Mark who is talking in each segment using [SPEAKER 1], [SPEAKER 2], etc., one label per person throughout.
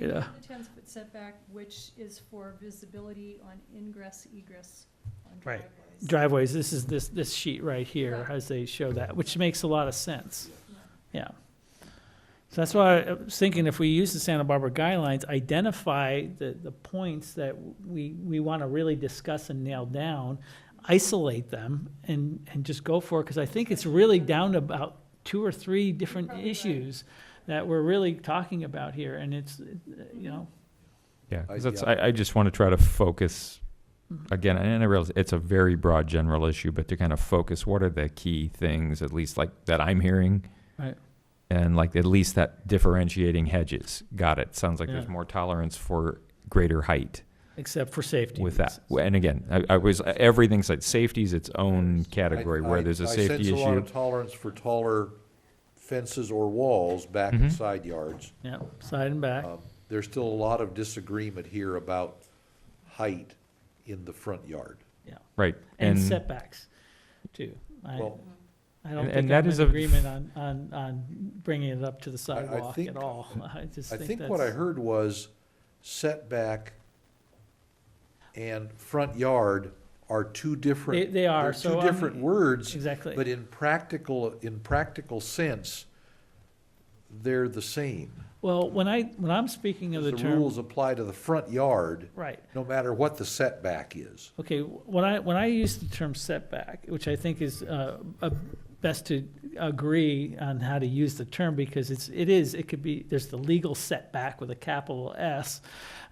[SPEAKER 1] Yeah.
[SPEAKER 2] The ten-foot setback, which is for visibility on ingress, egress on
[SPEAKER 1] Right.
[SPEAKER 2] driveways.
[SPEAKER 1] Driveways, this is, this, this sheet right here,
[SPEAKER 2] Correct.
[SPEAKER 1] as they show that, which makes a lot of sense,
[SPEAKER 2] Yeah.
[SPEAKER 1] yeah. So that's why I was thinking if we use the Santa Barbara guidelines, identify the, the points that we, we want to really discuss and nail down, isolate them, and, and just go for it, because I think it's really down to about two or three different
[SPEAKER 2] Probably right.
[SPEAKER 1] issues that we're really talking about here, and it's, uh, you know,
[SPEAKER 3] Yeah,
[SPEAKER 4] I-
[SPEAKER 3] 'cause that's,
[SPEAKER 4] yeah.
[SPEAKER 3] I, I just want to try to focus,
[SPEAKER 1] Mhm.
[SPEAKER 3] again, and I realize it's a very broad general issue, but to kind of focus, what are the key things, at least like that I'm hearing?
[SPEAKER 1] Right.
[SPEAKER 3] And like, at least that differentiating hedges, got it, sounds like there's
[SPEAKER 1] Yeah.
[SPEAKER 3] more tolerance for greater height
[SPEAKER 1] except for safety.
[SPEAKER 3] with that.
[SPEAKER 1] reasons.
[SPEAKER 3] And again, I, I was, everything's like, safety's its own category,
[SPEAKER 4] I-
[SPEAKER 3] where there's
[SPEAKER 4] I-
[SPEAKER 3] a safety
[SPEAKER 4] I sense a lot
[SPEAKER 3] issue.
[SPEAKER 4] of tolerance for taller fences or walls back and
[SPEAKER 3] Mhm.
[SPEAKER 4] side yards.
[SPEAKER 1] Yeah, side and back,
[SPEAKER 4] Um, There's still a lot of disagreement here about height in the front yard.
[SPEAKER 1] yeah.
[SPEAKER 3] Right,
[SPEAKER 1] and
[SPEAKER 3] and,
[SPEAKER 1] setbacks, too. I,
[SPEAKER 4] Well,
[SPEAKER 1] I don't
[SPEAKER 3] and-
[SPEAKER 1] think
[SPEAKER 3] and that
[SPEAKER 1] I'm
[SPEAKER 3] is
[SPEAKER 1] in
[SPEAKER 3] a-
[SPEAKER 1] agreement on, on, on bringing it up to the
[SPEAKER 4] I
[SPEAKER 1] sidewalk at
[SPEAKER 4] think-
[SPEAKER 1] all. I just
[SPEAKER 4] I
[SPEAKER 1] think
[SPEAKER 4] think what I
[SPEAKER 1] that's,
[SPEAKER 4] heard was setback and front yard are two different.
[SPEAKER 1] They- they are,
[SPEAKER 4] they're
[SPEAKER 1] so
[SPEAKER 4] Two
[SPEAKER 1] I'm-
[SPEAKER 4] different words. But
[SPEAKER 1] exactly.
[SPEAKER 4] in practical, in practical sense, they're the same.
[SPEAKER 1] Well, when I, when I'm speaking of the
[SPEAKER 4] The
[SPEAKER 1] term,
[SPEAKER 4] rules apply to the front yard,
[SPEAKER 1] right,
[SPEAKER 4] no matter what the setback is.
[SPEAKER 1] okay, when I, when I use the term setback, which I think is, uh, uh, best to agree on how to use the term, because it's, it is, it could be, there's the legal setback with a capital S,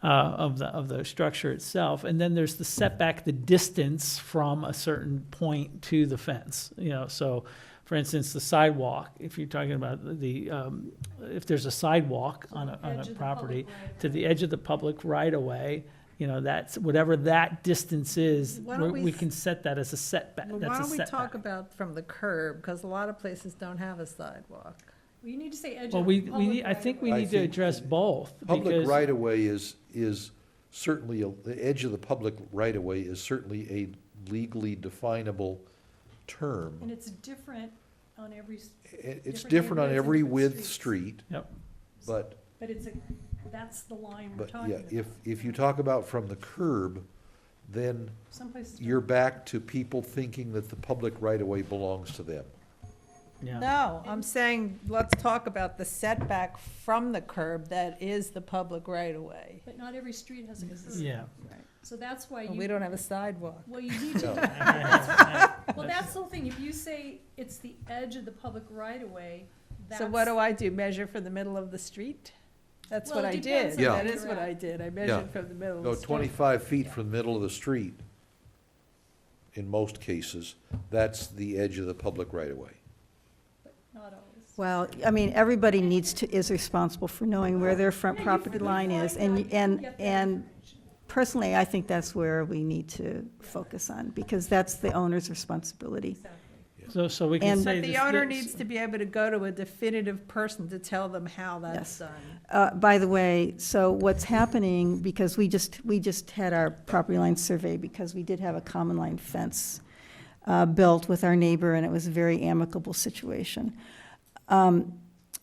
[SPEAKER 1] uh, of the, of the structure itself, and then there's the setback, the distance from a certain point to the fence, you know, so, for instance, the sidewalk, if you're talking about the, um, if there's a sidewalk on a, on
[SPEAKER 2] Edge
[SPEAKER 1] a
[SPEAKER 2] of the public
[SPEAKER 1] property,
[SPEAKER 2] right-of-way.
[SPEAKER 1] to the edge of the public right-of-way, you know, that's, whatever that distance is,
[SPEAKER 5] Why don't
[SPEAKER 1] we
[SPEAKER 5] we
[SPEAKER 1] we
[SPEAKER 5] s-
[SPEAKER 1] can set that as a setback,
[SPEAKER 5] Well, why
[SPEAKER 1] that's a
[SPEAKER 5] don't we talk
[SPEAKER 1] setback.
[SPEAKER 5] about from the curb, because a lot of places don't have a sidewalk.
[SPEAKER 2] Well, you need to say edge of
[SPEAKER 1] Well, we, we, need- I think we
[SPEAKER 4] I
[SPEAKER 1] need to
[SPEAKER 4] think
[SPEAKER 1] address both,
[SPEAKER 4] Public
[SPEAKER 1] because,
[SPEAKER 4] right-of-way is, is certainly, a- the edge of the public right-of-way is certainly a legally definable
[SPEAKER 2] And
[SPEAKER 4] term.
[SPEAKER 2] it's different on every, s-
[SPEAKER 4] It- It's
[SPEAKER 2] different
[SPEAKER 4] different on
[SPEAKER 2] neighborhoods and
[SPEAKER 4] every
[SPEAKER 2] different
[SPEAKER 4] width
[SPEAKER 2] streets.
[SPEAKER 4] street,
[SPEAKER 1] yep,
[SPEAKER 4] but,
[SPEAKER 2] but it's a, that's the line we're
[SPEAKER 4] but
[SPEAKER 2] talking
[SPEAKER 4] yeah,
[SPEAKER 2] about.
[SPEAKER 4] if, if you talk about from the curb, then
[SPEAKER 2] Some places. don't.
[SPEAKER 4] you're back to people thinking that the public right-of-way belongs to them.
[SPEAKER 1] yeah,
[SPEAKER 5] No, I'm saying, let's talk about the setback from the curb that is the public right-of-way.
[SPEAKER 2] But not every street has a curb.
[SPEAKER 1] yeah.
[SPEAKER 2] So that's why
[SPEAKER 5] And We
[SPEAKER 2] you,
[SPEAKER 5] don't have a sidewalk.
[SPEAKER 2] well, you need to,
[SPEAKER 4] No,
[SPEAKER 2] well, that's the whole thing. If you say it's the edge of the public right-of-way, that's.
[SPEAKER 5] So what do I do, measure from the middle of the street? That's
[SPEAKER 2] Well,
[SPEAKER 5] what
[SPEAKER 2] it
[SPEAKER 5] I did,
[SPEAKER 2] depends
[SPEAKER 4] on
[SPEAKER 5] that
[SPEAKER 2] where
[SPEAKER 5] is
[SPEAKER 2] you're
[SPEAKER 5] what
[SPEAKER 2] at.
[SPEAKER 5] I did, I
[SPEAKER 4] Yeah.
[SPEAKER 5] measured from the middle of
[SPEAKER 4] No,
[SPEAKER 5] the street.
[SPEAKER 4] twenty-five feet from the middle of the street, in most cases, that's the edge of the public right-of-way.
[SPEAKER 2] Not always.
[SPEAKER 6] Well, I mean, everybody needs to, is responsible for knowing where their front property line is. And, and, and personally, I think that's where we need to focus on, because that's the owner's responsibility.
[SPEAKER 1] So, so we can
[SPEAKER 6] And-
[SPEAKER 1] say.
[SPEAKER 5] But the
[SPEAKER 1] this-
[SPEAKER 5] owner
[SPEAKER 1] this-
[SPEAKER 5] needs to be able to go to a definitive person to tell them how that's
[SPEAKER 6] Yes.
[SPEAKER 5] done.
[SPEAKER 6] Uh, by the way, so what's happening, because we just, we just had our property line survey, because we did have a common line fence uh, built with our neighbor, and it was a very amicable situation. Um,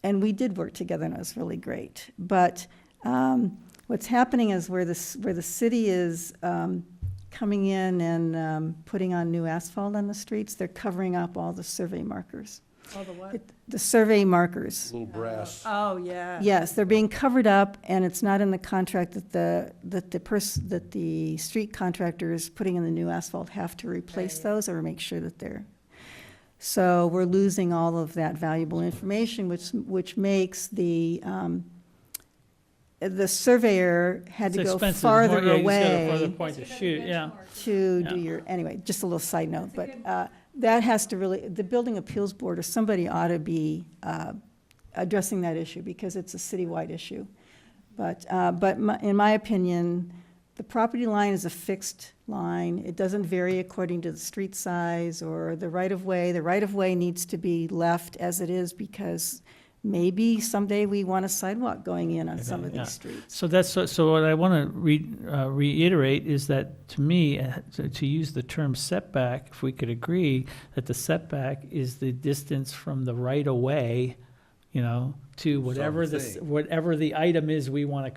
[SPEAKER 6] And we did work together, and it was really great. But um, what's happening is where this, where the city is um, coming in and um, putting on new asphalt on the streets, they're covering up all the survey markers.
[SPEAKER 5] All the what?
[SPEAKER 6] It- The survey markers.
[SPEAKER 4] Little brass.
[SPEAKER 5] Oh, yeah.
[SPEAKER 6] Yes, they're being covered up, and it's not in the contract that the, that the person, that the street contractors putting in the new asphalt have to replace
[SPEAKER 5] Right.
[SPEAKER 6] those or make sure that they're. So we're losing all of that valuable information, which, which makes the, um, the surveyor had
[SPEAKER 1] It's
[SPEAKER 6] to go
[SPEAKER 1] expensive,
[SPEAKER 6] farther
[SPEAKER 1] more- yeah, you just got a Farther
[SPEAKER 6] away
[SPEAKER 1] point to shoot, yeah.
[SPEAKER 6] to do
[SPEAKER 1] Yeah.
[SPEAKER 6] your, anyway, just a little side
[SPEAKER 2] That's
[SPEAKER 6] note,
[SPEAKER 2] a
[SPEAKER 6] but
[SPEAKER 2] good-
[SPEAKER 6] uh, that has to really, the Building Appeals Board or somebody ought to be uh, addressing that issue because it's a citywide issue. But, uh, but my- in my opinion, the property line is a fixed line. It doesn't vary according to the street size or the right-of-way. The right-of-way needs to be left as it is because maybe someday we want a sidewalk going in on some of
[SPEAKER 1] Yeah.
[SPEAKER 6] these streets.
[SPEAKER 1] So that's, so- so what I want to re, uh, reiterate is that, to me, uh, to, to use the term setback, if we could agree that the setback is the distance from the right-of-way, you know, to whatever this,
[SPEAKER 4] Something.
[SPEAKER 1] whatever the item is we want to